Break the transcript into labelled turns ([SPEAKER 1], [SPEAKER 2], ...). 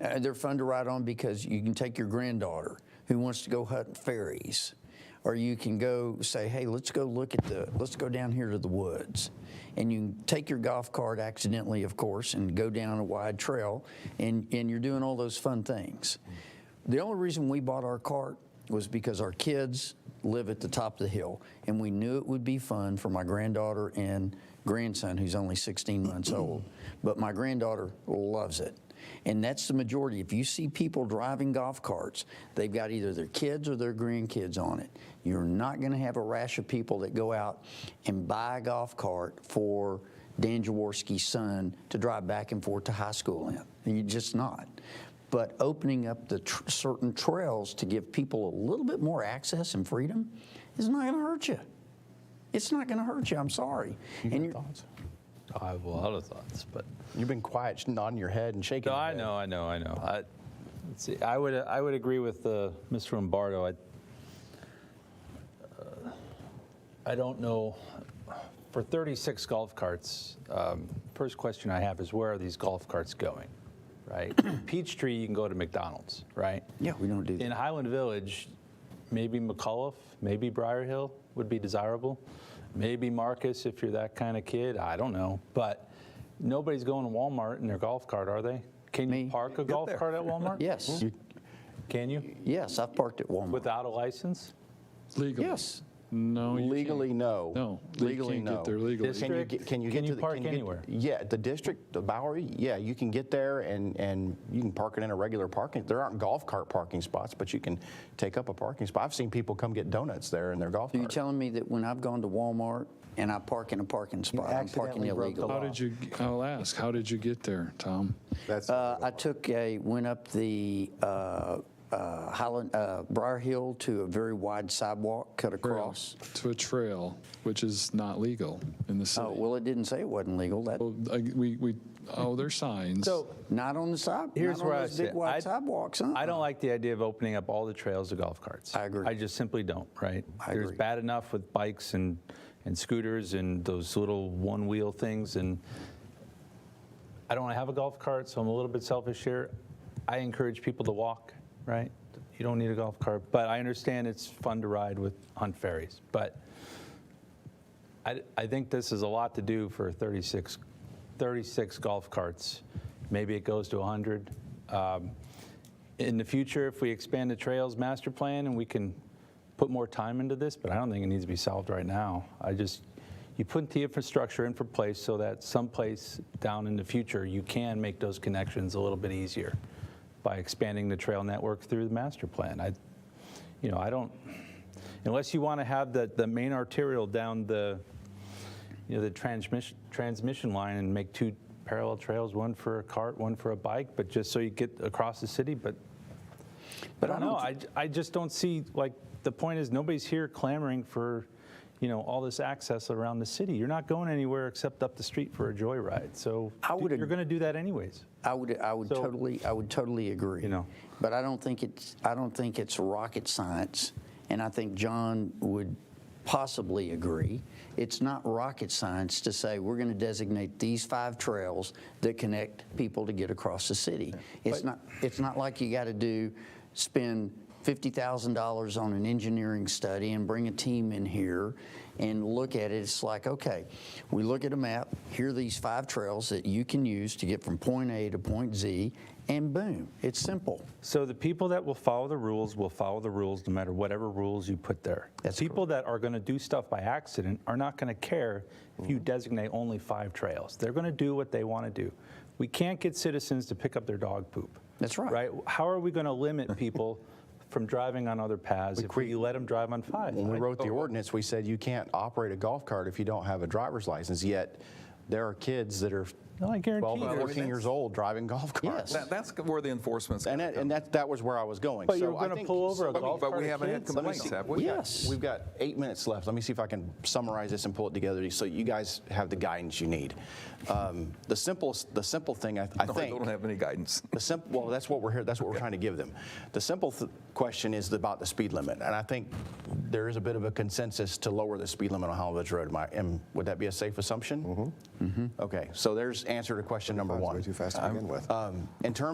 [SPEAKER 1] Uh, they're fun to ride on because you can take your granddaughter who wants to go hunt fairies, or you can go say, "Hey, let's go look at the, let's go down here to the woods," and you can take your golf cart accidentally, of course, and go down a wide trail, and and you're doing all those fun things. The only reason we bought our cart was because our kids live at the top of the hill, and we knew it would be fun for my granddaughter and grandson, who's only 16 months old. But my granddaughter loves it. And that's the majority. If you see people driving golf carts, they've got either their kids or their grandkids on it. You're not going to have a rash of people that go out and buy a golf cart for Dan Jaworski's son to drive back and forth to high school in. You're just not but opening up the tr- certain trails to give people a little bit more access and freedom is not going to hurt you. It's not going to hurt you. I'm sorry. and you're,
[SPEAKER 2] Thoughts?
[SPEAKER 3] I have a lot of thoughts, but
[SPEAKER 2] You've been quiet, nodding your head and shaking.
[SPEAKER 3] no,
[SPEAKER 2] your
[SPEAKER 3] I
[SPEAKER 2] head.
[SPEAKER 3] know, I know, I know. I, let's see, I would, I would agree with uh, Mr. Lombardo. I, uh, I don't know. For 36 golf carts, um, first question I have is where are these golf carts going? Right, Peachtree, you can go to McDonald's, right?
[SPEAKER 1] yeah, we don't do
[SPEAKER 3] In
[SPEAKER 1] that.
[SPEAKER 3] Highland Village, maybe McAuliffe, maybe Briar Hill would be desirable. Maybe Marcus if you're that kind of kid. I don't know. But nobody's going to Walmart in their golf cart, are they? Can
[SPEAKER 1] Me.
[SPEAKER 3] you park a golf
[SPEAKER 2] there.
[SPEAKER 3] cart at Walmart?
[SPEAKER 1] Yes.
[SPEAKER 3] Can you?
[SPEAKER 1] Yes, I've parked at Walmart.
[SPEAKER 3] Without a license?
[SPEAKER 4] Legally?
[SPEAKER 1] yes.
[SPEAKER 4] No. you can't.
[SPEAKER 2] Legally, no.
[SPEAKER 4] No.
[SPEAKER 2] Legally,
[SPEAKER 4] you can't
[SPEAKER 2] no.
[SPEAKER 4] get there legally.
[SPEAKER 3] This-
[SPEAKER 2] Can you
[SPEAKER 3] District,
[SPEAKER 2] get, can you
[SPEAKER 3] can
[SPEAKER 2] get
[SPEAKER 3] you
[SPEAKER 2] to the,
[SPEAKER 3] park
[SPEAKER 2] can you get-
[SPEAKER 3] anywhere?
[SPEAKER 2] yeah, the district, the Bowery. Yeah, you can get there and and you can park it in a regular parking. There aren't golf cart parking spots, but you can take up a parking spot. I've seen people come get donuts there in their golf
[SPEAKER 1] So you're
[SPEAKER 2] cart.
[SPEAKER 1] telling me that when I've gone to Walmart and I park in a parking spot, I'm parking
[SPEAKER 2] accidentally broke the
[SPEAKER 1] illegal.
[SPEAKER 2] law.
[SPEAKER 4] How did you, I'll ask, how did you get there, Tom?
[SPEAKER 5] That's
[SPEAKER 1] Uh, I took a went up the uh, uh, Highland uh, Briar Hill to a very wide sidewalk, cut across.
[SPEAKER 4] To a trail, which is not legal in the city.
[SPEAKER 1] Oh well, it didn't say it wasn't legal. That
[SPEAKER 4] Well, I- We, we, oh, there's signs.
[SPEAKER 3] So
[SPEAKER 1] Not on the side.
[SPEAKER 3] here's
[SPEAKER 1] not
[SPEAKER 3] where
[SPEAKER 1] on
[SPEAKER 3] I
[SPEAKER 1] those
[SPEAKER 3] sit.
[SPEAKER 1] big wide
[SPEAKER 3] I-
[SPEAKER 1] sidewalks. Huh?
[SPEAKER 3] I don't like the idea of opening up all the trails to golf carts.
[SPEAKER 1] I agree.
[SPEAKER 3] I just simply don't, right?
[SPEAKER 1] I
[SPEAKER 3] There's
[SPEAKER 1] agree.
[SPEAKER 3] bad enough with bikes and, and scooters and those little one wheel things. And I don't have a golf cart, so I'm a little bit selfish here. I encourage people to walk, right? You don't need a golf cart, but I understand it's fun to ride with hunt ferries. But I, I think this is a lot to do for 36, 36 golf carts. Maybe it goes to 100. Um, in the future, if we expand the trails master plan and we can put more time into this, but I don't think it needs to be solved right now. I just, you put the infrastructure in for place so that someplace down in the future, you can make those connections a little bit easier by expanding the trail network through the master plan. I, you know, I don't, unless you want to have the, the main arterial down the, you know, the transmission, transmission line and make two parallel trails, one for a cart, one for a bike, but just so you get across the city, but
[SPEAKER 1] But
[SPEAKER 3] I don't know. I, j- I just don't see, like, the point is nobody's here clamoring for, you know, all this access around the city. You're not going anywhere except up the street for a joyride. So
[SPEAKER 1] I would
[SPEAKER 3] d- you're
[SPEAKER 1] ag-
[SPEAKER 3] going to do that anyways.
[SPEAKER 1] I would, I would
[SPEAKER 3] So-
[SPEAKER 1] totally, I would totally agree.
[SPEAKER 3] You know.
[SPEAKER 1] But I don't think it's, I don't think it's rocket science, and I think John would possibly agree. It's not rocket science to say we're going to designate these five trails that connect people to get across the city. It's not, it's not like you got to do, spend $50,000 on an engineering study and bring a team in here and look at it. It's like, okay, we look at a map, here are these five trails that you can use to get from point A to point Z, and boom, it's simple.
[SPEAKER 3] So the people that will follow the rules will follow the rules no matter whatever rules you put there.
[SPEAKER 1] That's
[SPEAKER 3] people that are going to do stuff by accident are not going to care if you designate only five trails. They're going to do what they want to do. We can't get citizens to pick up their dog poop.
[SPEAKER 1] That's right.
[SPEAKER 3] Right? How are we going to limit people from driving on other paths if we let them drive on five?
[SPEAKER 2] When we
[SPEAKER 3] Like,
[SPEAKER 2] wrote the
[SPEAKER 3] oh,
[SPEAKER 2] ordinance, we said you can't operate a golf cart if you don't have a driver's license. Yet there are kids that are
[SPEAKER 3] No, I guarantee
[SPEAKER 2] 12 and
[SPEAKER 3] there's-
[SPEAKER 2] 14 years old driving golf
[SPEAKER 1] Yes.
[SPEAKER 2] carts.
[SPEAKER 5] That, that's where the enforcement's.
[SPEAKER 2] And that, and that, that was where I was going.
[SPEAKER 3] But
[SPEAKER 2] So
[SPEAKER 3] you're
[SPEAKER 2] I
[SPEAKER 3] going to
[SPEAKER 2] think-
[SPEAKER 3] pull over a
[SPEAKER 5] But we-
[SPEAKER 3] golf
[SPEAKER 5] but
[SPEAKER 3] cart.
[SPEAKER 5] we
[SPEAKER 3] of
[SPEAKER 5] haven't had
[SPEAKER 3] kids?
[SPEAKER 2] Let me
[SPEAKER 5] complaints,
[SPEAKER 2] see.
[SPEAKER 5] have we?
[SPEAKER 2] got-
[SPEAKER 1] Yes.
[SPEAKER 2] We've got eight minutes left. Let me see if I can summarize this and pull it together so you guys have the guidance you need. Um, the simplest, the simple thing I, I
[SPEAKER 5] No, I
[SPEAKER 2] think.
[SPEAKER 5] don't have any guidance.
[SPEAKER 2] The simple, well, that's what we're here. That's what we're trying to give them. The simple th- question is about the speed limit, and I think there is a bit of a consensus to lower the speed limit on Holland Village Road. Am I- am- would that be a safe assumption? Mm-hmm. Okay, so there's answer to question number
[SPEAKER 5] That's
[SPEAKER 2] one.
[SPEAKER 5] Way too fast to begin with.
[SPEAKER 2] Um, in terms